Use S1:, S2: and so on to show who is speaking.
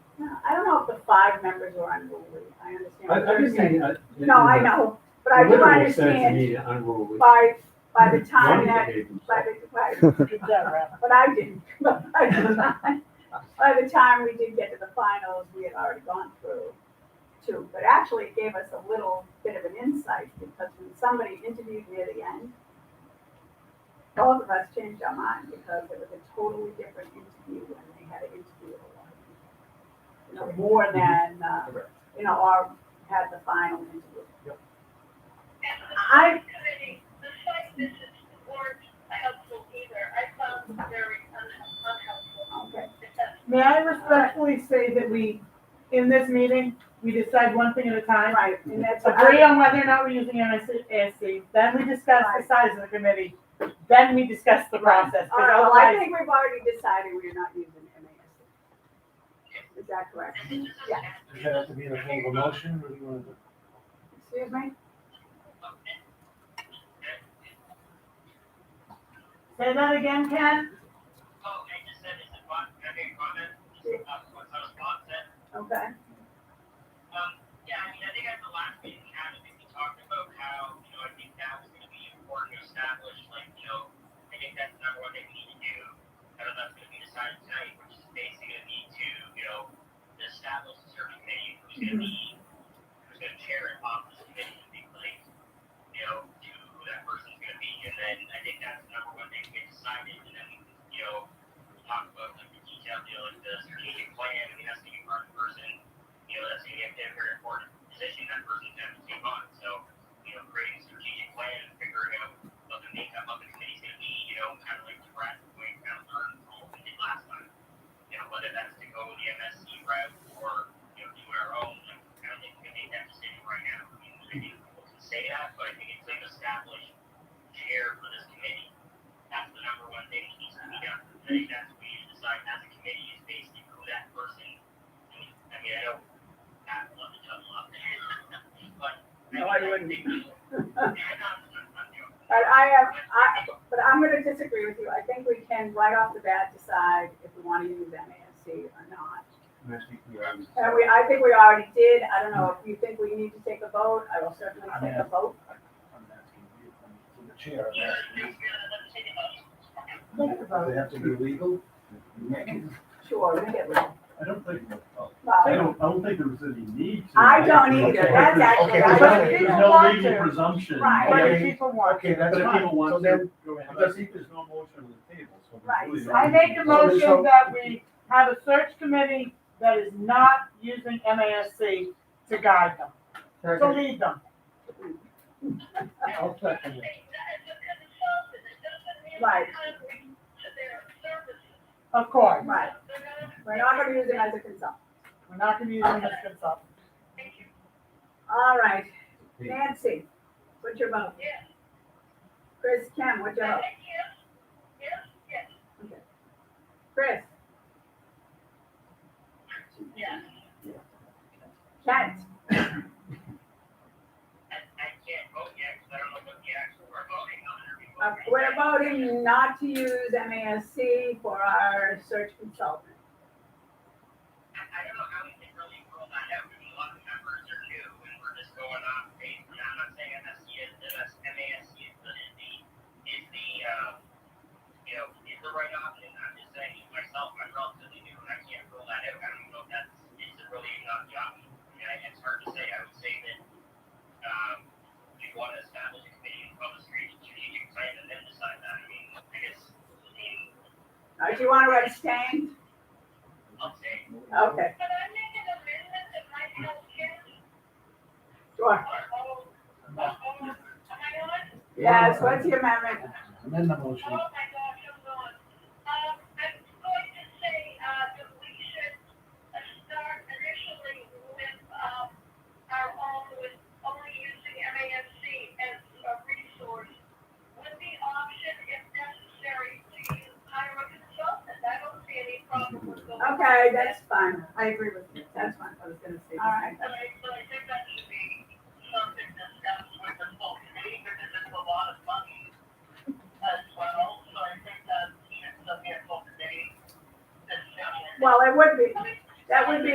S1: know if the five members are unruly, I understand.
S2: I,
S1: what
S2: I'm
S1: you're
S2: just saying. uh, in-
S1: No,
S2: in
S1: I
S2: the
S1: know, but I do
S2: literal sense, you
S1: understand
S2: need unruly.
S1: by, by the
S2: Johnny
S1: time that,
S2: behaved himself.
S1: by the, by, but I didn't. But By the time- by the time we did get to the finals, we had already gone through two, but actually it gave us a little bit of an insight because when somebody interviewed me at the end, both of us changed our mind because it was a totally different interview when they had an interview. of a lot of people. You know, more than, uh,
S2: Correct.
S1: you know, our, had the final interview.
S3: I, the site visits weren't helpful either. I found them very unhe- unhelpful.
S1: Okay.
S3: If that's-
S4: May I respectfully say that we, in this meeting, we decide one thing at a time.
S1: Right, and that's.
S4: Agree on whether or not we're using MASC, then we discuss the size of the committee, then we discuss the process. 'cause
S1: All right, well, I
S4: otherwise-
S1: think we've already decided we're not using MASC. Is that correct? Yeah.
S5: Does that have to be in a form of a motion, or do you want to?
S1: Excuse me?
S4: Say that again, Ken?
S6: Oh,
S1: Okay.
S6: Um, Yeah, I mean, I think at the last meeting we had, I think we talked about how, you know, I think that was gonna be important to establish, like, you know, I think that's the number one thing we need to do. I don't know if that's gonna be decided tonight, which is basically gonna be to, you know, establish a certain committee, who's gonna be, who's gonna chair and pop this committee, and be like, you know, to who that person's gonna be, and then I think that's the number one thing we decided, and then, you know, talk about like the detail, you know, like the strategic plan, I mean, that's gonna be part of the person you know, that's gonna be a very important position that person's gonna have to take on. So, you know, creating a strategic plan and figuring out what the makeup of the committee's gonna be, you know, kind of like the Brad Wayne kind of learned from what we did last time. You know, whether that's to go the MSC route or, you know, do our own, like, kind of think we can make that decision right now. I mean, I think we can say that, but I think it's like established chair for this committee. That's the number one thing that needs to be done. I think that's what we need to decide as a committee is basically who that person, I mean, I mean, I don't I would love to tell them up. But.
S4: No, I wouldn't.
S1: But I have, I, but I'm gonna disagree with you. I think we can right off the bat decide if we wanna use MASC or not. And we, I think we already did. I don't know if you think we need to take a vote. I will certainly take a vote.
S5: I'm asking you, I'm the chair, I'm asking
S4: Think
S5: you.
S4: about
S5: Does it have to be legal?
S1: Sure, we get it.
S7: I don't think, I
S1: Well,
S7: don't, I don't think there was any need to.
S1: I don't either. That's actually.
S5: Okay,
S1: I
S5: okay.
S1: don't
S7: There's
S1: think-
S7: no
S4: want
S7: legal
S4: to.
S7: presumption.
S1: Right.
S4: What do
S5: Okay.
S4: people want?
S5: Okay, that's
S7: But if
S5: fine.
S7: people want
S5: So
S7: to-
S5: then, go ahead.
S7: Because if there's no motion on the table, so. there's
S1: Right.
S7: really no
S4: I make a
S7: need.
S4: motion that we have a search committee that is not using MASC to guide them, to lead them.
S5: I'll second it.
S4: Of course,
S1: Right, we're not gonna use it as a consultant.
S4: we're not gonna use them as consultants.
S3: Thank you.
S1: All right, Nancy, what's your vote?
S3: Yes.
S1: Chris, Kim, what's your vote?
S3: Yes, yes, yes,
S1: Chris,
S3: yes.
S1: Kent,
S3: Oh,
S1: uh, we're voting not to use MASC for our search consultant.
S6: I don't know how we can really roll that out, because a lot of members are new, and we're just going off base, and I'm not saying MSC is, MS, MASC is the, is the, is the, um, you know, is the right option, I'm just saying, myself, I'm relatively new, and I can't roll that out, I don't know if that's, is it really not the option? I mean, I- it's hard to say, I would say that, um, we want to establish a committee and public strategic plan, and then decide that, I mean, I guess, I mean,
S1: Uh, Do you want to abstain?
S6: I'll say,
S1: Okay,
S3: Can I make an amendment that might help Kim?
S1: sure.
S3: Oh, oh, oh, am I on?
S1: Yes, what's your amendment?
S5: Amend the motion.
S3: Oh, my gosh, I'm on. Um, I'm going to say, uh, that we should uh, start initially with, um, our own, with only using MASC as a resource. With the option, if necessary, to hire a consultant. I don't see any problem with going.
S1: Okay, that's fine. I agree with